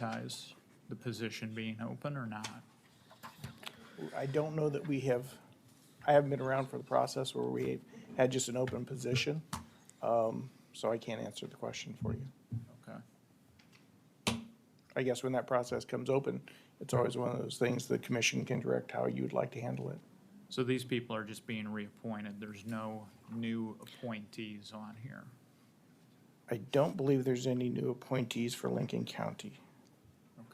advertise the position being open or not? I don't know that we have, I haven't been around for the process where we had just an open position. um, So I can't answer the question for you. Okay. I guess when that process comes open, it's always one of those things the commission can direct how you'd like to handle it. So these people are just being reappointed. There's no new appointees on here. I don't believe there's any new appointees for Lincoln County.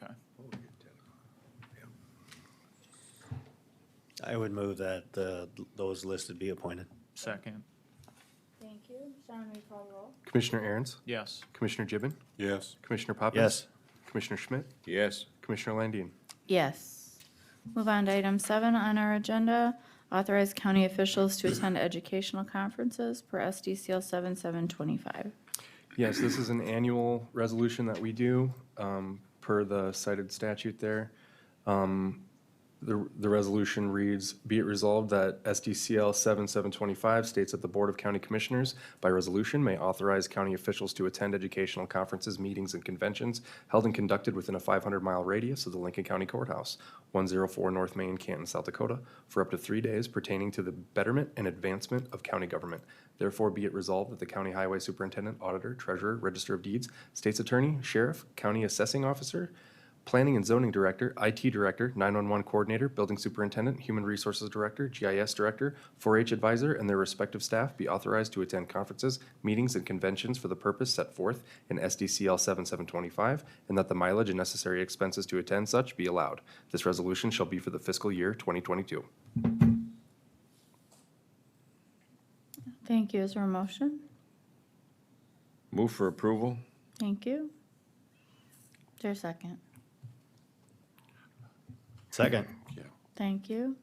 Okay. I would move that the, those listed be appointed. Second, Thank you. Shannon, will you call the roll? Commissioner Aaron's, yes. Commissioner Gibbon, Yes. Commissioner Poppins. Yes. Commissioner Schmidt, Yes. Commissioner Landine. Yes. Move on to item seven on our agenda. Authorize county officials to attend educational conferences per SDCL 7725. Yes, this is an annual resolution that we do um, per the cited statute there. Um, The the resolution reads, "Be it resolved that SDCL 7725 states that the Board of County Commissioners by resolution may authorize county officials to attend educational conferences, meetings, and conventions held and conducted within a 500-mile radius of the Lincoln County Courthouse, 104 North Main, Canton, South Dakota, for up to three days pertaining to the betterment and advancement of county government. Therefore, be it resolved that the county highway superintendent, auditor, treasurer, register of deeds, state's attorney, sheriff, county assessing officer, Planning and Zoning Director, IT Director, 911 Coordinator, Building Superintendent, Human Resources Director, GIS Director, 4-H Advisor, and their respective staff be authorized to attend conferences, meetings, and conventions for the purpose set forth in SDCL 7725, and that the mileage and necessary expenses to attend such be allowed. This resolution shall be for the fiscal year 2022. Thank you. Is there a motion? Move for approval? Thank you. Is there a second? Second. Thank you.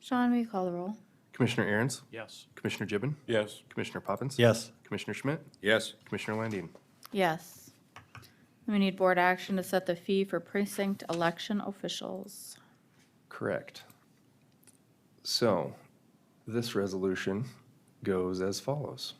Sean, will you call the roll? Commissioner Aaron's, Yes. Commissioner Gibbon, Yes. Commissioner Poppins. Yes. Commissioner Schmidt, Yes. Commissioner Landine. Yes. We need board action to set the fee for precinct election officials. Correct. So, this resolution goes as follows.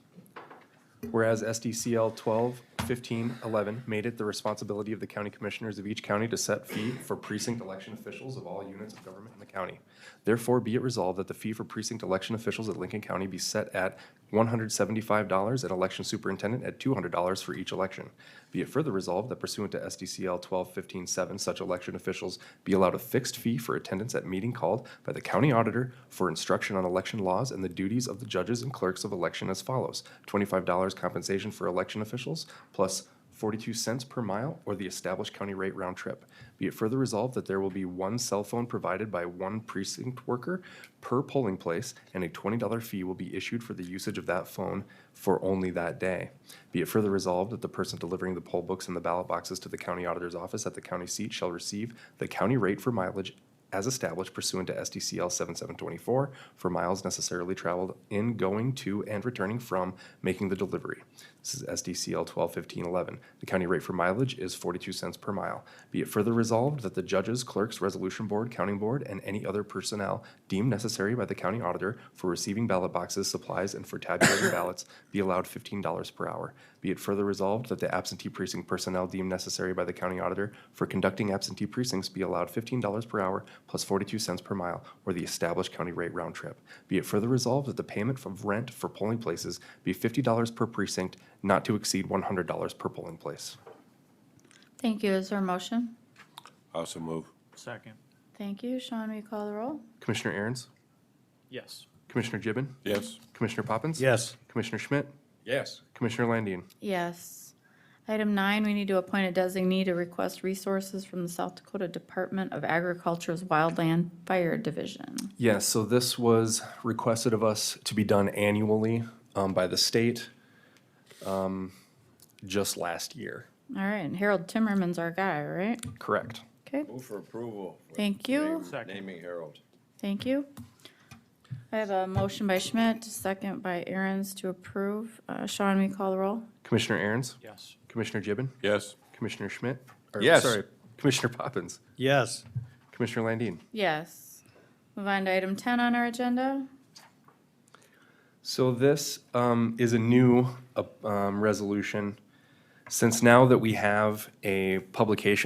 Whereas SDCL 12, 15, 11 made it the responsibility of the county commissioners of each county to set fee for precinct election officials of all units of government in the county. Therefore, be it resolved that the fee for precinct election officials at Lincoln County be set at $175 and election superintendent at $200 for each election. Be it further resolved that pursuant to SDCL 12-15-7, such election officials be allowed a fixed fee for attendance at meeting called by the county auditor for instruction on election laws and the duties of the judges and clerks of election as follows. $25 compensation for election officials, plus 42 cents per mile or the established county rate round trip. Be it further resolved that there will be one cell phone provided by one precinct worker per polling place, and a $20 fee will be issued for the usage of that phone for only that day. Be it further resolved that the person delivering the poll books and the ballot boxes to the county auditor's office at the county seat shall receive the county rate for mileage as established pursuant to SDCL 7724 for miles necessarily traveled in, going to, and returning from making the delivery. This is SDCL 121511. The county rate for mileage is 42 cents per mile. Be it further resolved that the judges, clerks, resolution board, counting board, and any other personnel deemed necessary by the county auditor for receiving ballot boxes, supplies, and for tabulating ballots be allowed $15 per hour. Be it further resolved that the absentee precinct personnel deemed necessary by the county auditor for conducting absentee precincts be allowed $15 per hour plus 42 cents per mile or the established county rate round trip. Be it further resolved that the payment of rent for polling places be $50 per precinct, not to exceed $100 per polling place. Thank you. Is there a motion? Also move. Second, Thank you. Sean, will you call the roll? Commissioner Aaron's, yes. Commissioner Gibbon, Yes. Commissioner Poppins. Yes. Commissioner Schmidt, Yes. Commissioner Landine. Yes. Item nine, we need to appoint a designee to request resources from the South Dakota Department of Agriculture's Wildland Fire Division. Yes, so this was requested of us to be done annually um, by the state um, just last year. All right, and Harold Timmerman's our guy, right? Correct. Okay, Move for approval. for Thank you. name- Second. Naming Harold. thank you. I have a motion by Schmidt, second by Aaron's to approve. Uh, Sean, will you call the roll? Commissioner Aaron's, Yes. Commissioner Gibbon, Yes. Commissioner Schmidt. or, Yes. Sorry, Commissioner Poppins, Yes. Commissioner Landine. Yes. Move on to item ten on our agenda. So this um, is a new uh, um, resolution. Since now that we have a publication